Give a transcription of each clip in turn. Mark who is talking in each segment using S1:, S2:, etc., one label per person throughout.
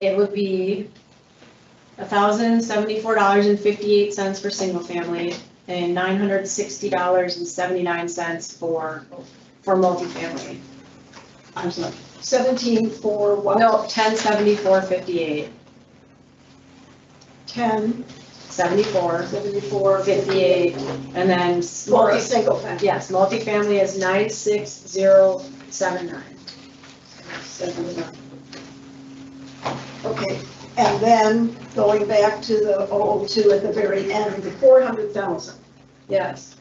S1: it would be thousand seventy-four dollars and fifty-eight cents for single family and nine hundred sixty dollars and seventy-nine cents for, for multifamily. I'm sorry,
S2: Seventeen for what?
S1: no, ten seventy-four fifty-eight,
S2: Ten,
S1: seventy-four,
S2: seventy-four,
S1: fifty-eight, and then.
S2: For a single family.
S1: Yes, multifamily is nine six zero seven nine.
S2: Okay, and then going back to the 002 at the very end, the four hundred thousand.
S1: Yes.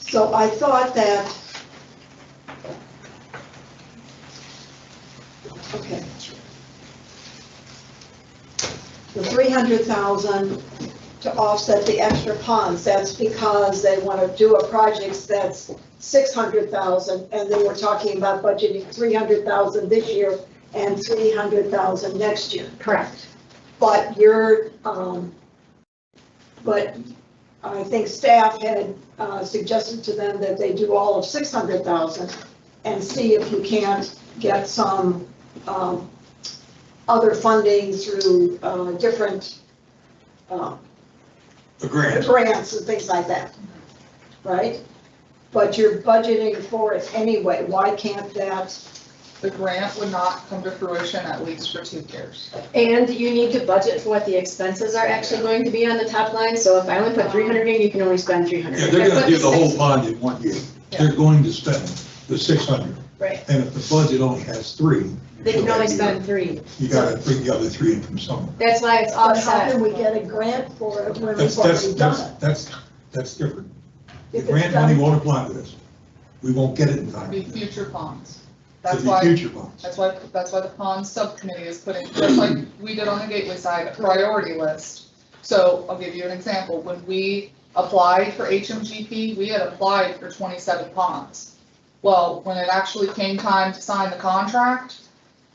S2: So I thought that. Okay. The three hundred thousand to offset the extra ponds, that's because they want to do a project that's six hundred thousand, and then we're talking about budgeting three hundred thousand this year and three hundred thousand next year.
S1: Correct.
S2: But your, um, but I think staff had uh, suggested to them that they do all of six hundred thousand and see if you can't get some, um, other funding through, uh, different, uh,
S3: A grant.
S2: grants and things like that, right? But you're budgeting for it anyway, why can't that,
S4: The grant would not come to fruition at least for two years.
S1: And you need to budget for what the expenses are actually going to be on the top line, so if I only put three hundred in, you can only spend three hundred.
S3: Yeah, they're gonna do the whole bond in one year. They're going to spend the six hundred.
S1: Right.
S3: And if the budget only has three.
S1: They can only spend three,
S3: You gotta bring the other three in from somewhere.
S1: that's why it's
S2: but how
S1: offset.
S2: can we get a grant for it when we've
S3: That's, that's,
S2: already
S3: that's,
S2: done
S3: that's, that's different.
S2: it?
S3: The grant money won't apply to this. We won't get it in time.
S4: Be
S3: It'll
S4: future ponds. That's
S3: be
S4: why,
S3: future bonds.
S4: that's why, that's why the pond subcommittee is putting, just like we did on the Gateway side, a priority list. So I'll give you an example. When we applied for HMGP, we had applied for twenty-seven ponds. Well, when it actually came time to sign the contract,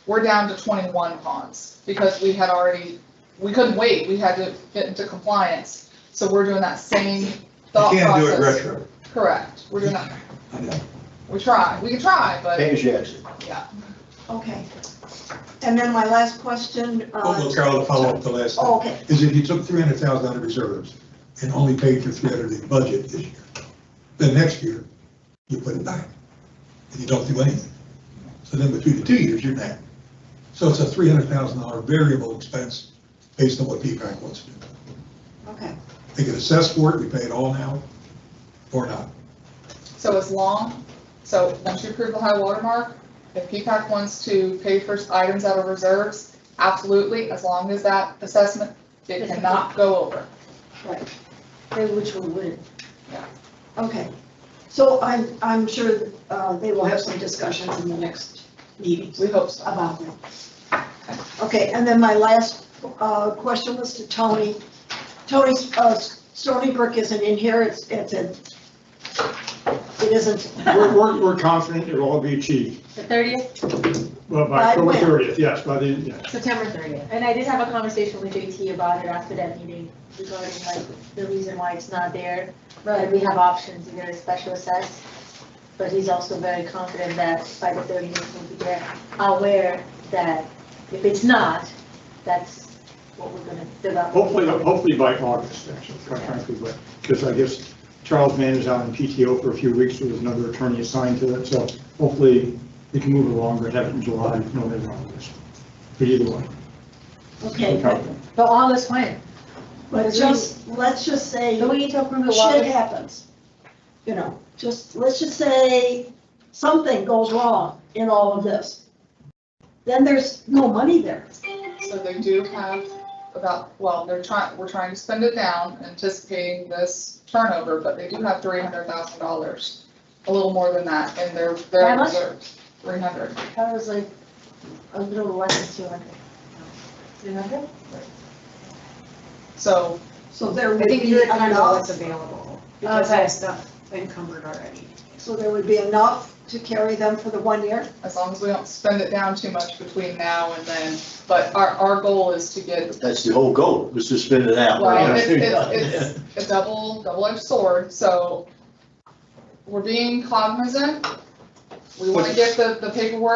S4: we're down to twenty-one ponds because we had already, we couldn't wait. We had to get into compliance. So we're doing that same
S3: You
S4: thought process.
S3: can't do it retro.
S4: Correct, we're doing that,
S3: I know.
S4: we try, we can try, but
S5: Pay as you exit.
S2: Okay. And then my last question,
S3: Oh,
S2: uh,
S3: well, Carol, to follow up the last
S2: oh,
S3: thing,
S2: okay,
S3: is if you took three hundred thousand out of reserves and only paid for three hundred in budget this year, then next year, you put it back, and you don't do anything. So then between the two years, you're net. So it's a three hundred thousand dollar variable expense based on what P-PAC wants to do.
S2: okay.
S3: They can assess for it, we pay it all now, or not.
S4: so as long, so once you approve the high water mark, if PPAC wants to pay for items out of reserves, absolutely, as long as that assessment, it cannot go over.
S2: Right, and which will win.
S4: Yeah.
S2: Okay, so I'm, I'm sure uh, they will have some discussions in the next meetings
S4: We hope so.
S2: about that. Okay, and then my last uh, question was to Tony. Tony, uh, Stony Brook isn't in here, it's, it's a, it isn't.
S6: We're, we're, we're confident it will all be achieved,
S1: The thirtieth,
S6: well,
S2: By
S6: by October
S2: when?
S6: thirtieth, yes, by the, yeah.
S1: September thirtieth.
S7: And I did have a conversation with JT about it after that meeting regarding like the reason why it's not there. But we have options, either a special assess, but he's also very confident that by the thirtieth we'll be there. Aware that if it's not, that's what we're gonna develop.
S6: Hopefully, hopefully by August, actually, quite frankly, but, because I guess Charles Mann is out in PTO for a few weeks, there was another attorney assigned to it, so hopefully we can move along, but have it in July, no, later on this. But either way,
S2: Okay,
S6: we're
S2: but-
S6: confident.
S7: But all is fine,
S2: but just, let's just say.
S7: but we need to approve the
S2: shit
S7: water.
S2: happens. You know, just, let's just say something goes wrong in all of this. Then there's no money there.
S4: So they do have about, well, they're trying, we're trying to spend it down, anticipating this turnover, but they do have three hundred thousand dollars, a little more than that, in their,
S7: How
S4: their
S7: much?
S4: reserves, three hundred.
S7: That was like a little less than two hundred. Three hundred?
S4: So
S2: So there
S1: I
S2: would
S1: think
S2: be
S1: you kind of know
S2: enough,
S1: what's available, because I have stuff encumbered already.
S2: so there would be enough to carry them for the one year.
S4: as long as we don't spend it down too much between now and then, but our, our goal is to get,
S5: That's the whole goal, was to spin it out.
S4: well,
S6: yeah,
S4: it's,
S6: I see
S4: it's, it's a double, double-edged sword, so we're being cognizant. We wanna get the, the paperwork